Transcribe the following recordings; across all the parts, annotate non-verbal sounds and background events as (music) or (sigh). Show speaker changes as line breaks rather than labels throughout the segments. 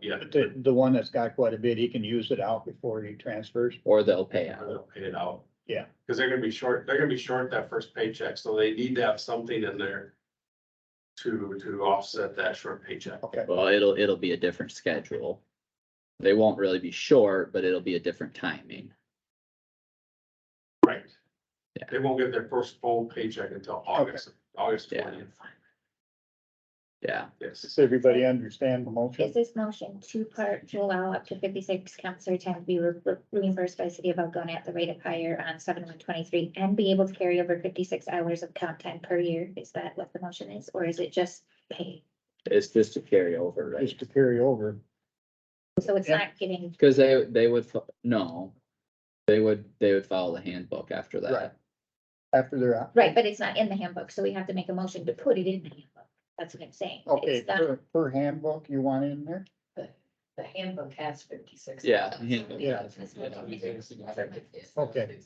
yeah.
The, the one that's got quite a bit, he can use it out before he transfers.
or they'll pay out.
They'll Pay it out.
Yeah.
Cause they're gonna be short, they're gonna be short that first paycheck, so they need to have something in there to, to offset that short paycheck.
Okay,
Well, it'll, it'll be a different schedule. They won't really be short, but it'll be a different timing.
Right.
Yeah.
They won't get their first full paycheck until August, August
Yeah.
twentieth,
Yeah,
yes.
does everybody understand the motion?
Is this motion two part to allow up to fifty-six counselor time to be re- re- reimbursed by city of Algona at the rate of hire on seven one twenty-three and be able to carry over fifty-six hours of comp time per year? Is that what the motion is, or is it just pay?
it's just a carryover, right?
Just to carry over.
So it's not getting,
Cause they, they would, fo- no, they would, they would follow the handbook after
Right.
that.
After they're out.
right, but it's not in the handbook, so we have to make a motion to put it in the handbook. That's what I'm saying.
Okay,
It's not-
per, per handbook you want in there?
The handbook has fifty-six.
Yeah. the handbook
Yeah.
does.
Okay.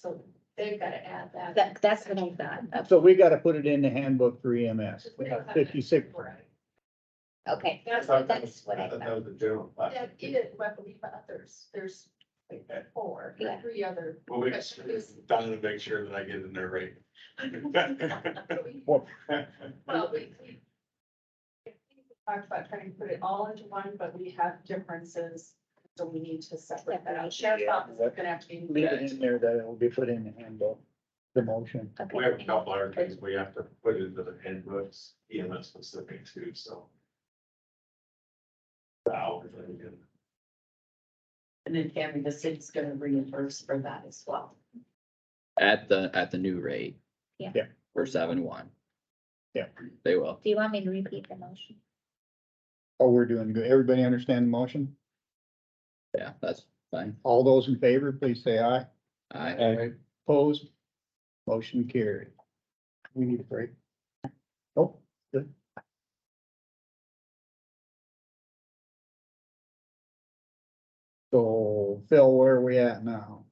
So they've got to add that.
That, that's what I thought.
So we gotta put it in the handbook for EMS. We got fifty-six.
Right.
Okay,
That's,
That-
that's what I
that- That
thought.
was the general. plan.
that is, I believe, others, there's like four, or
Yeah.
three other.
(laughs)
Well, we just, Don, to make sure that I get in there right.
Well,
(laughs)
Well, we. we- we Talked about trying to put it all into one, but we have differences, so we need to separate that out. Sheriff's
Yeah.
office is gonna have to be.
leave it in there that it will be put in the handbook, the motion.
Okay.
We have a couple other things we have to put into the handbooks, EMS specific too, so. The hours, I mean,
And then Tammy, the city's gonna reimburse for that as well.
At the, at the new rate.
Yeah.
Yeah.
For seven one.
Yeah.
They will.
Do you want me to repeat the motion?
Oh, we're doing good. Everybody understand the motion?
Yeah, that's fine.
All those in favor, please say aye.
I,
Aye. Opposed? Motion carried. We need a break. Oh, good. So Phil, where are we at now?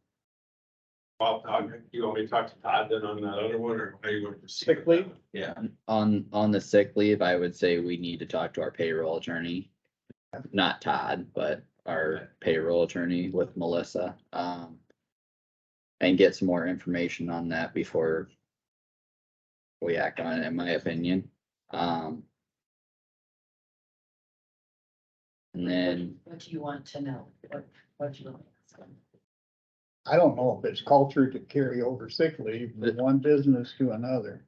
Well, Todd, you want me to talk to Todd then on that other one, or are you going to proceed?
Sick
with that
leave?
one? Yeah,
on, on the sick leave, I would say we need to talk to our payroll attorney. Not Todd, but our payroll attorney with Melissa, um. And get some more information on that before. We act on it, in my opinion, um. And then,
What do you want to know? What, what do you want? to ask?
I don't know if it's culture to carry over sick leave from one business to another.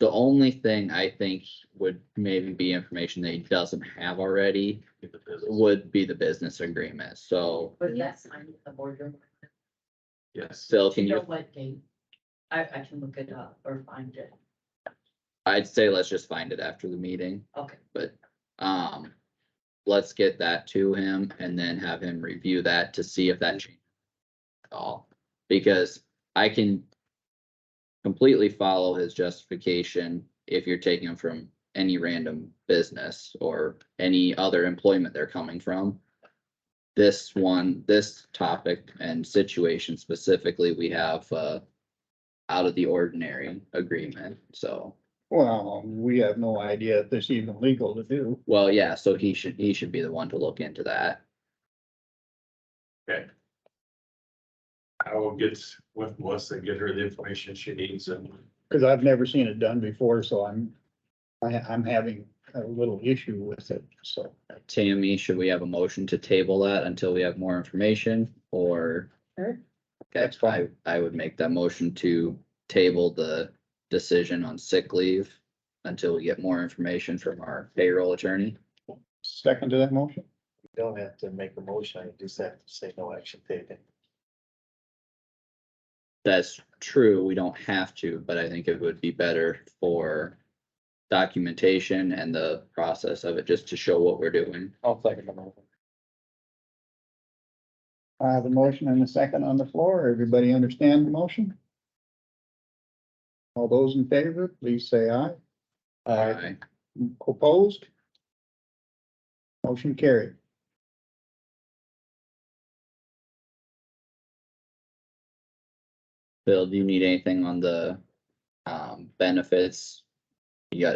the only thing I think would maybe be information that he doesn't have already
get the business.
would be the business agreement, so.
Was that signed at the boardroom?
Yes,
Phil,
Do
can
you know
you,
what date? I, I can look it up or find it.
I'd say let's just find it after the meeting,
Okay.
but, um. Let's get that to him and then have him review that to see if that changes. at All, because I can. Completely follow his justification if you're taking him from any random business or any other employment they're coming from. This one, this topic and situation specifically, we have, uh. Out of the ordinary agreement, so.
Well, we have no idea if this is even legal to do.
Well, yeah, so he should, he should be the one to look into that.
I will get with Melissa, and get her the information she needs and
Cause I've never seen it done before, so I'm, I, I'm having a little issue with it, so.
Tammy, should we have a motion to table that until we have more information or?
Sure.
Okay,
That's
I,
fine.
I would make that motion to table the decision on sick leave until we get more information from our payroll attorney.
Second to that motion?
You don't have to make a motion, you just have to say no action taken.
That's true, we don't have to, but I think it would be better for documentation and the process of it, just to show what we're doing.
I'll second the motion.
I have a motion and a second on the floor. Everybody understand the motion? All those in favor, please say aye.
Aye.
Opposed? Motion carried.
Bill, do you need anything on the um benefits? You got